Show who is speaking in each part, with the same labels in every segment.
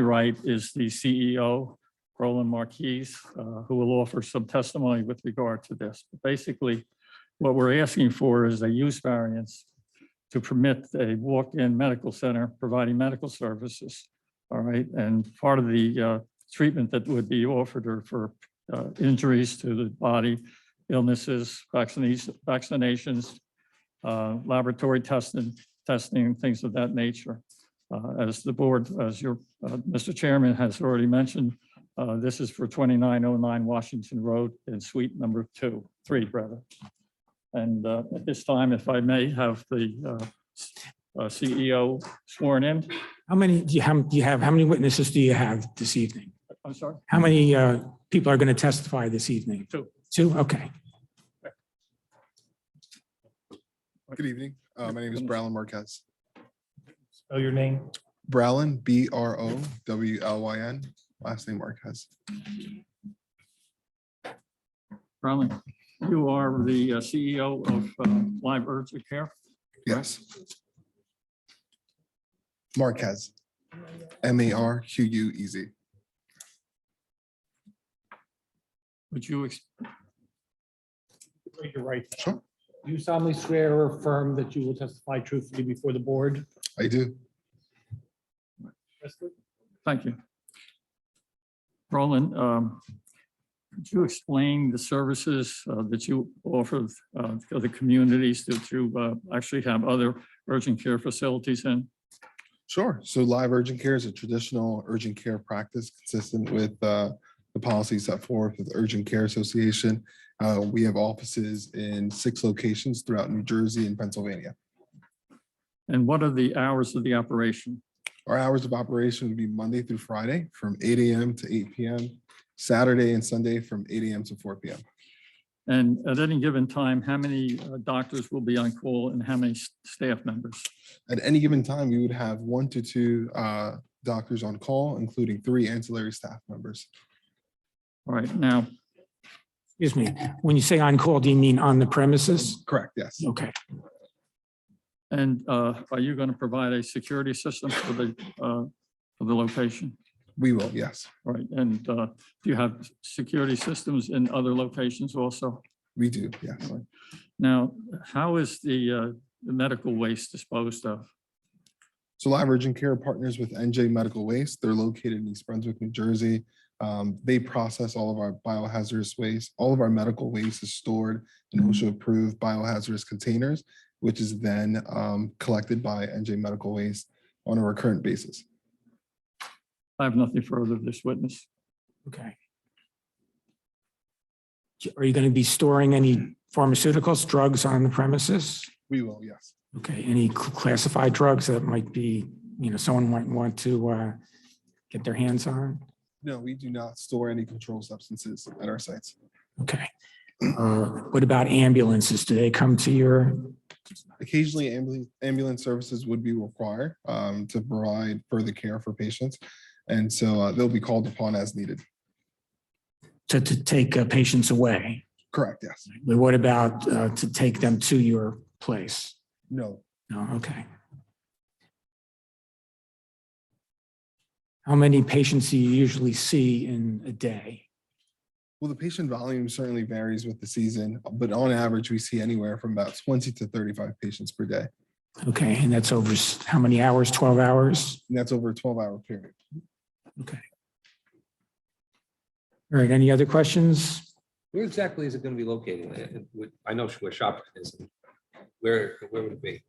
Speaker 1: Right is the CEO, Roland Marquise, uh, who will offer some testimony with regard to this. Basically, what we're asking for is a use variance to permit a walk-in medical center providing medical services. All right, and part of the uh, treatment that would be offered are for uh, injuries to the body, illnesses, vaccinations, vaccinations, uh, laboratory testing, testing, things of that nature. Uh, As the board, as your, uh, Mr. Chairman has already mentioned, uh, this is for 2909 Washington Road in suite number two, three, rather. And uh, at this time, if I may have the uh, s- uh, CEO sworn in,
Speaker 2: How many do you have, do you have, how many witnesses do you have this evening?
Speaker 1: I'm sorry.
Speaker 2: How many uh, people are going to testify this evening?
Speaker 1: Two.
Speaker 2: Two, okay.
Speaker 3: Good evening. Uh, My name is Browlin Marquez.
Speaker 4: Spell your name.
Speaker 3: Browlin, B R O W L Y N, last name Marquez.
Speaker 1: Ronald, you are the uh, CEO of uh, Live Urgent Care.
Speaker 3: Yes. Marquez. M A R Q U E Z.
Speaker 1: Would you ex-
Speaker 4: Raise your right. hand.
Speaker 3: Sure,
Speaker 4: Do You solemnly swear or affirm that you will testify truthfully before the board?
Speaker 3: I do.
Speaker 1: Thank you. Roland, um, could you explain the services uh, that you offer uh, to the communities that you uh, actually have other urgent care facilities in?
Speaker 3: Sure. So live urgent care is a traditional urgent care practice consistent with uh, the policies set forth with the Urgent Care Association. Uh, We have offices in six locations throughout New Jersey and Pennsylvania.
Speaker 1: And what are the hours of the operation?
Speaker 3: Our hours of operation would be Monday through Friday from eight AM to eight PM, Saturday and Sunday from eight AM to four PM.
Speaker 1: And at any given time, how many uh, doctors will be on call and how many s- staff members?
Speaker 3: At any given time, we would have one to two uh, doctors on call, including three ancillary staff members.
Speaker 1: All right, now,
Speaker 2: Excuse me. When you say on call, do you mean on the premises?
Speaker 3: Correct, yes.
Speaker 2: Okay.
Speaker 1: and uh, are you going to provide a security system for the, uh, for the location?
Speaker 3: We will, yes.
Speaker 1: All Right, and uh, do you have security systems in other locations also?
Speaker 3: We do, yes.
Speaker 1: Now, how is the uh, the medical waste disposed of?
Speaker 3: So Live Urgent Care partners with NJ Medical Waste. They're located in East Brunswick, New Jersey. Um, They process all of our biohazardous waste. All of our medical waste is stored in OSHA-approved biohazardous containers, which is then um, collected by NJ Medical Waste on a recurrent basis.
Speaker 1: I have nothing further of this witness.
Speaker 2: Okay. Are you going to be storing any pharmaceuticals, drugs on the premises?
Speaker 3: We will, yes.
Speaker 2: Okay, any cl- classified drugs that might be, you know, someone might want to uh, get their hands on?
Speaker 3: No, we do not store any controlled substances at our sites.
Speaker 2: Okay. Uh, What about ambulances? Do they come to your,
Speaker 3: Occasionally, ambulance, ambulance services would be required um, to provide further care for patients. And so uh, they'll be called upon as needed.
Speaker 2: to, to take uh, patients away?
Speaker 3: Correct, yes.
Speaker 2: But what about uh, to take them to your place?
Speaker 3: No,
Speaker 2: No, okay. How many patients do you usually see in a day?
Speaker 3: Well, the patient volume certainly varies with the season, but on average, we see anywhere from about 20 to 35 patients per day.
Speaker 2: Okay, and that's over s- how many hours? 12 hours?
Speaker 3: And that's over a 12 hour period.
Speaker 2: All right, any other questions?
Speaker 5: Where exactly is it going to be located? Uh, would- I know where Shopton is. Where, where would it be?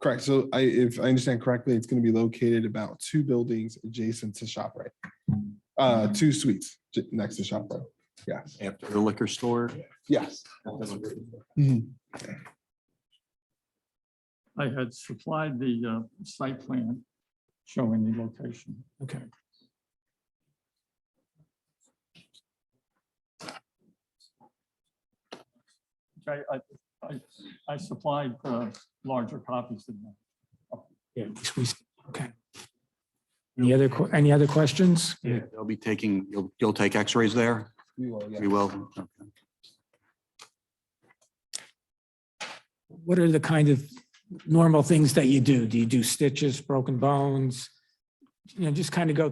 Speaker 3: Correct. So I, if I understand correctly, it's going to be located about two buildings adjacent to ShopRite. Uh, two suites j- next to ShopRite. Yes,
Speaker 6: After the liquor store.
Speaker 3: yes. Mm-hmm.
Speaker 1: I had supplied the uh, site plan showing the location.
Speaker 2: Okay.
Speaker 1: Okay, I, I, I supplied uh, larger copies than that.
Speaker 2: Yeah, we- Okay. Any other, que- any other questions?
Speaker 6: They'll be taking, you'll, you'll take x-rays there.
Speaker 3: We will, yes.
Speaker 6: We will.
Speaker 2: What are the kind of normal things that you do? Do you do stitches, broken bones? You know, just kind of go